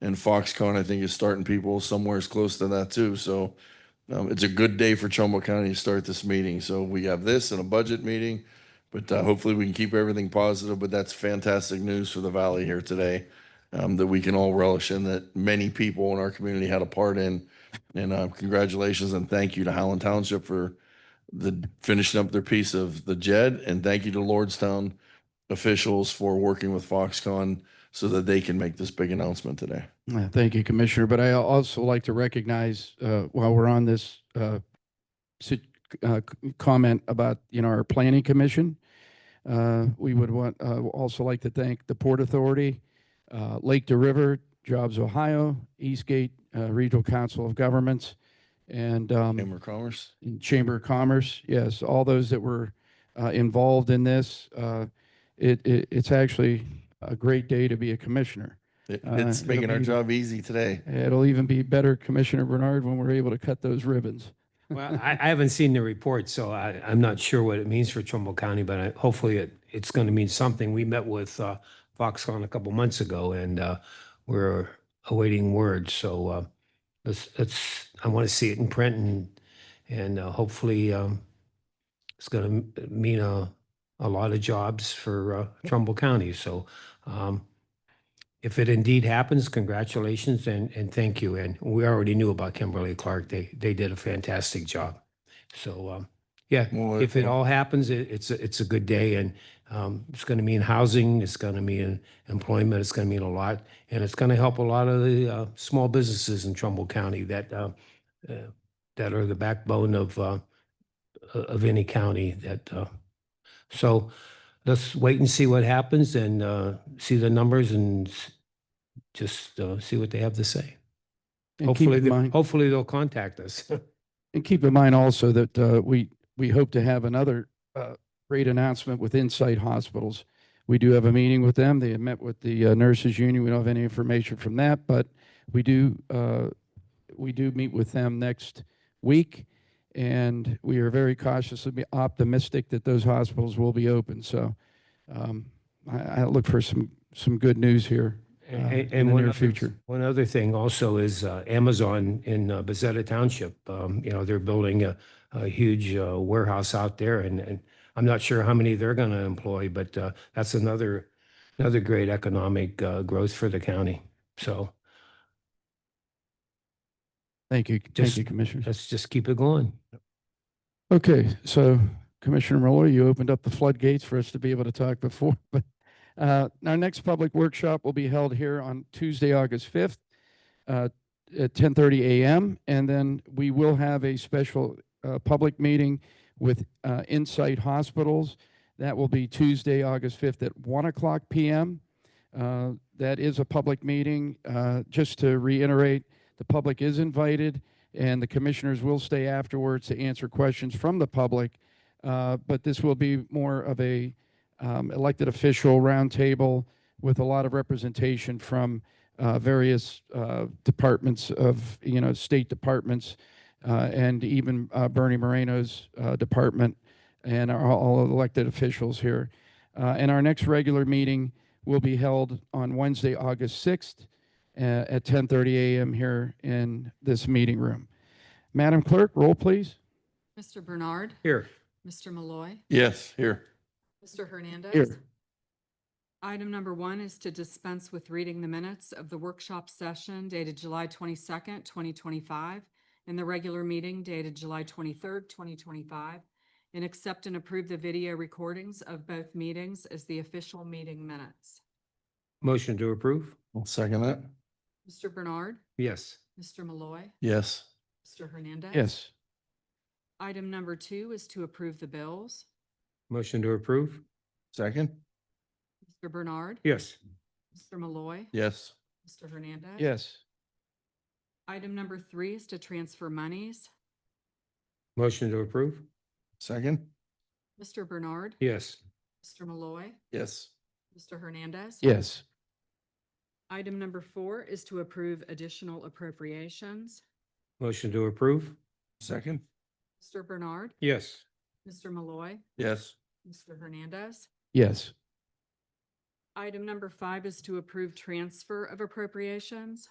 And Foxconn, I think, is starting people somewhere as close to that too. So um, it's a good day for Trumbull County to start this meeting. So we have this and a budget meeting, but uh, hopefully we can keep everything positive. But that's fantastic news for the valley here today um, that we can all relish in that many people in our community had a part in. And uh, congratulations and thank you to Howland Township for the finishing up their piece of the JED. And thank you to Lordstown officials for working with Foxconn so that they can make this big announcement today. Yeah, Uh, Thank you, Commissioner, but I also like to recognize, uh, while we're on this, uh, sit- uh, c- comment about, you know, our planning commission. Uh, we would want, uh, also like to thank the Port Authority, uh, Lake to River, Jobs Ohio, Eastgate, uh, Regional Council of Governments, and, um, Chamber of Commerce. and Chamber of Commerce, yes, all those that were uh, involved in this. uh, It, it, it's actually a great day to be a commissioner. It- Uh, It's it'll making our be- job easy today. It'll even be better, Commissioner Bernard, when we're able to cut those ribbons. Well, I, I haven't seen the report, so I, I'm not sure what it means for Trumbull County, but I, hopefully it, it's going to mean something. We met with, uh, Foxconn a couple months ago and, uh, we're awaiting word. So, uh, let's, let's, I want to see it in print and, and uh, hopefully, um, it's going to mean a, a lot of jobs for, uh, Trumbull County. So, um, if it indeed happens, congratulations and, and thank you. And we already knew about Kimberly Clark. They, they did a fantastic job. So, um, yeah, Well, if it well- all happens, it, it's, a- it's a good day and, um, it's going to mean housing, it's going to mean employment, it's going to mean a lot. And it's going to help a lot of the, uh, small businesses in Trumbull County that, uh, uh, that are the backbone of, uh, of any county that, uh, so let's wait and see what happens and, uh, see the numbers and s- just, uh, see what they have to say. And keep Hopefully, in they- mind, hopefully they'll contact us. and keep in mind also that uh, we, we hope to have another uh, great announcement with Insight Hospitals. We do have a meeting with them. They had met with the uh, nurses union. We don't have any information from that, but we do, uh, we do meet with them next week. And we are very cautiously optimistic that those hospitals will be open. So um, I, I look for some, some good news here. A- uh, a- in the And one near other- future. One other thing also is uh, Amazon in uh, Bezetta Township. Um, You know, they're building a, a huge uh, warehouse out there and, and I'm not sure how many they're going to employ, but uh, that's another, another great economic uh, growth for the county. So Thank you, thank Just- you, Commissioner. let's just keep it going. Okay, so Commissioner Miller, you opened up the floodgates for us to be able to talk before, but uh, our next public workshop will be held here on Tuesday, August fifth, uh, at ten thirty a.m. And then we will have a special uh, public meeting with uh, Insight Hospitals. That will be Tuesday, August fifth at one o'clock p.m. Uh, that is a public meeting. Uh, just to reiterate, the public is invited and the commissioners will stay afterwards to answer questions from the public. Uh, But this will be more of a um, elected official roundtable with a lot of representation from uh, various uh, departments of, you know, state departments uh, and even uh, Bernie Moreno's uh, department and our- all of the elected officials here. Uh, And our next regular meeting will be held on Wednesday, August 6th uh, at 10:30 a.m. here in this meeting room. Madam Clerk, roll please. Mr. Bernard, Here. Mr. Malloy, Yes, here. Mr. Hernandez. Here. Item number one is to dispense with reading the minutes of the workshop session dated July twenty-second, twenty twenty-five, and the regular meeting dated July twenty-third, twenty twenty-five, and accept and approve the video recordings of both meetings as the official meeting minutes. Motion to approve? I'll second that. Mr. Bernard, Yes. Mr. Malloy, Yes, Mr. Hernandez. Yes. Item number two is to approve the bills. Motion to approve? second. Mr. Bernard, Yes. Mr. Malloy, Yes, Mr. Hernandez. Yes. Item number three is to transfer monies. Motion to approve? second. Mr. Bernard. Yes. Mr. Malloy. Yes, Mr. Hernandez. Yes. Item number four is to approve additional appropriations. Motion to approve? second. Mr. Bernard. Yes. Mr. Malloy. Yes, Mr. Hernandez. Yes. Item number five is to approve transfer of appropriations.